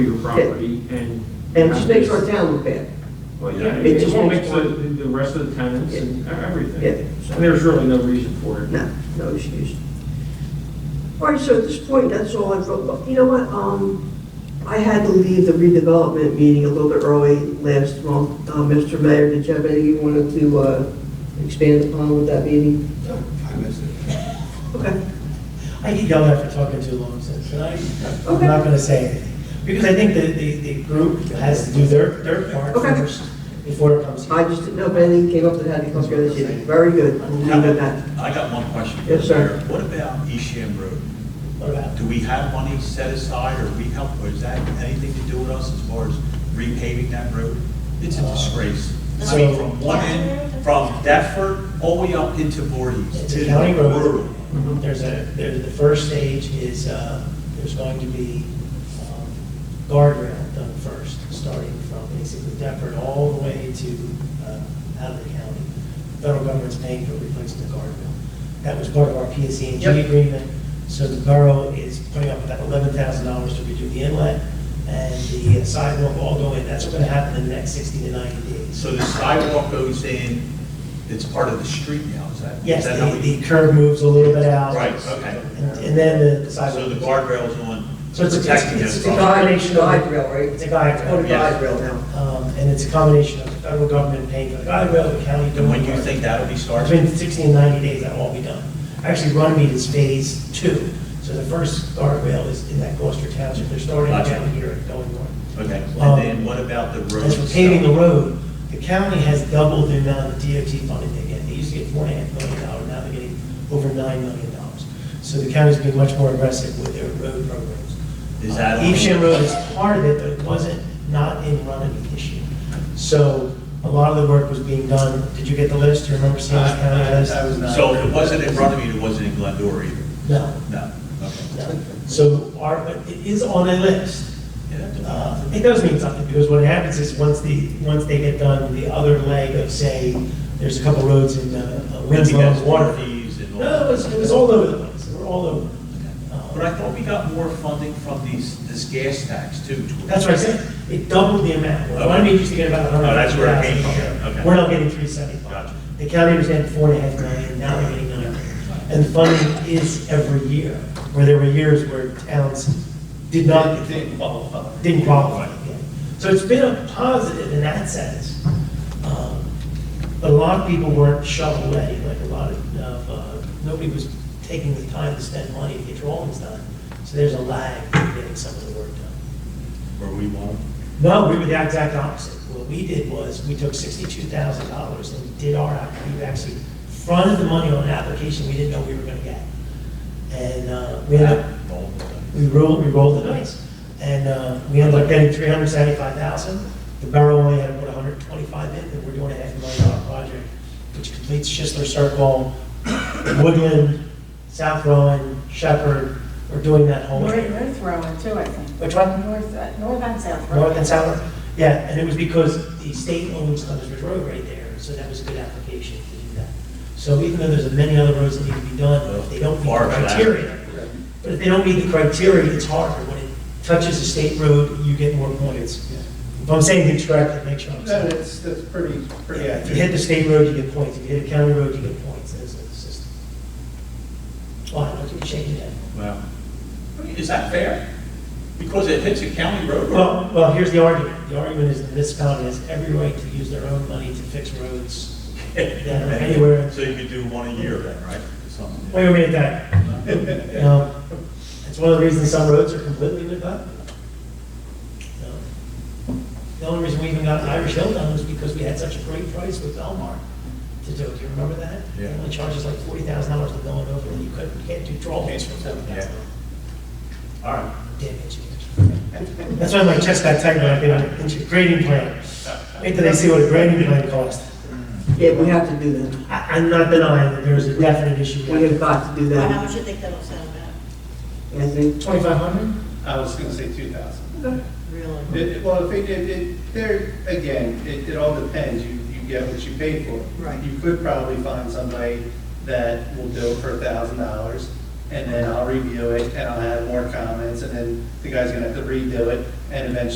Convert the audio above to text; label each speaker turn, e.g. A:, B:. A: your property and.
B: And it just makes our town look bad.
A: Well, yeah,
B: It
A: it
B: just
A: won't make
B: makes
A: the, the rest of the tenants and everything.
B: Yeah.
A: And there's really no reason for it.
B: No, no issues. All right, so at this point, that's all I wrote. Well, You know what, um, I had to leave the redevelopment meeting a little bit early last month. Uh, Mr. Mayor, did you have anything you wanted to, uh, expand upon with that meeting?
C: I missed it.
B: Okay.
D: I get yelled at for talking too long, so tonight,
B: Okay.
D: I'm not gonna say anything. Because I think the, the, the group has to do their, their part
B: Okay.
D: first, before it comes
B: I
D: here.
B: just didn't know if anything came up that had to come through this evening. Very good, we'll leave it at that.
E: I got one question. for
B: Yes,
E: the
B: sir.
E: mayor. What about East Sham Road?
D: What about?
E: Do we have money set aside or we help, or is that anything to do with us as far as repaving that road? It's
D: Uh,
E: a disgrace. I mean, from one end, from Deptford all the way up into Voorhees.
D: It's
E: to
D: a county
E: rural.
D: road. There's a, there's, the first stage is, uh, there's going to be, um, guardrail done first, starting from basically Deptford all the way to, uh, out of the county. Federal government's paying for replacing the guardrail. That was part of our PSE and G
B: Yep.
D: agreement. So the borough is putting up about eleven thousand dollars to redo the inlet and the sidewalk all going, that's gonna happen in the next sixty to ninety days.
E: So the sidewalk goes in, it's part of the street now, is that? is
D: Yes,
E: that how
D: the,
E: we-
D: the curb moves a little bit out.
E: Right, okay.
D: And and then the
E: So the
D: sidewalk.
E: guardrail's on,
D: So it's a- it's-
E: protecting
D: it's
E: us.
D: a
E: from-
D: guard-
B: Guide rail, right?
D: It's a guide rail,
B: Oh, the
E: yes.
B: guide rail now.
D: Um, and it's a combination of the federal government paying for the guide rail, the county.
E: And when you
D: doing-
E: think that'll be started?
D: Between sixty and ninety days, that'll all be done. Actually, Runnymede is phase two. So the first guard rail is in that Gloucester Township. They're starting
E: Gotcha.
D: down here and going north.
E: Okay, and
D: Um,
E: then what about the road?
D: As for paving the road, the county has doubled the amount of DOT funding they get. They used to get four and a half million dollars, now they're getting over nine million dollars. So the county's been much more aggressive with their road programs.
E: Is that on-
D: Evesham Road is part of it, but it wasn't, not in running the issue. So a lot of the work was being done. Did you get the list? Do you remember seeing the county list?
E: So if it wasn't in Runnymede, it wasn't in Glendora either?
D: No,
E: No, okay.
D: no. So our, but it is on a list. Uh, It does mean something, because what happens is, once the, once they get done, the other leg of, say, there's a couple roads in uh, uh,
E: Lindsay
D: Winslow,
E: has water
D: Water.
E: fees and all.
D: No, it was, it was all over the place, we're all over. Uh,
E: But I thought we got more funding from these, this gas tax too.
D: That's what I said, it doubled the amount. Well, I mean, you used to get about a hundred.
E: Oh, that's where it came from. Okay.
D: We're not getting three seventy-five.
E: Gotcha.
D: The county was getting four and a half million, now they're getting nine. And funding is every year, where there were years where towns did not. Didn't qualify. Didn't qualify, yeah. So it's been a positive in that sense. Um, But a lot of people weren't shovel ready, like a lot of, of, uh, nobody was taking the time to spend money to get your homes done. So there's a lag in getting some of the work done.
E: Where we won't.
D: No, we were the exact opposite. What we did was, we took sixty-two thousand dollars and we did our, app- we actually fronted the money on an application we didn't know we were gonna get. And, uh, we ended up, we rolled, we rolled the dice. And, uh, we ended up getting three hundred seventy-five thousand. The borough only had to put hundred twenty-five in, and we're doing a half a million dollar project, which completes Schistler Circle, Woodland, South Rowan, Shepherd. We're doing that whole.
F: North, North Rowan too, I think.
D: Which one?
F: North, uh, North and South Rowan.
D: North and South, yeah, and it was because the state owns Clemens Ridge Road right there, so that was a good application to do that. So even though there's many other roads that need to be done, if they don't meet the
E: Far from that.
D: criteria, but if they don't meet the criteria, it's harder. When it touches a state road, you get more points. If I'm saying things correctly, make sure I'm
C: No,
D: saying. it.
C: that's, that's pretty, pretty.
D: Yeah, if you hit the state road, you get points, if you hit a county road, you get points, that's the system. Well, I don't think you change that.
E: Wow. Is that fair? Because it hits a county road. or-
D: Well, well, here's the argument. The argument is the municipality has every right to use their own money to fix roads. Yeah, anywhere.
E: So you could do one a year then, right? Something.
D: Wait a minute, that. You know, It's one of the reasons some roads are completely lit up. You know, The only reason we even got Irish Hill done was because we had such a great price with Belmar to do it. Do you remember that?
E: Yeah.
D: It only charges like forty thousand dollars to go and over, and you couldn't, you can't do drawbacks for seven
E: Yeah.
D: thousand.
E: All right.
D: Damn engineers. That's why my chest got tight when I did an engineering grading plan. Wait till they see what a grading plan costs.
B: Yeah, we have to do that.
D: I, I'm not denying that there's a definite issue.
B: We have got to do
G: Well, How
B: that,
G: much you think that'll sell about?
B: Anthony.
D: Twenty-five hundred?
C: I was gonna say two thousand.
G: Really?
C: It, well, if it, it, it, there, again, it, it all depends, you, you get what you pay for.
G: Right.
C: You could probably find somebody that will do it for a thousand dollars, and then I'll review it, and I'll have more comments, and then the guy's gonna have to redo it, and eventually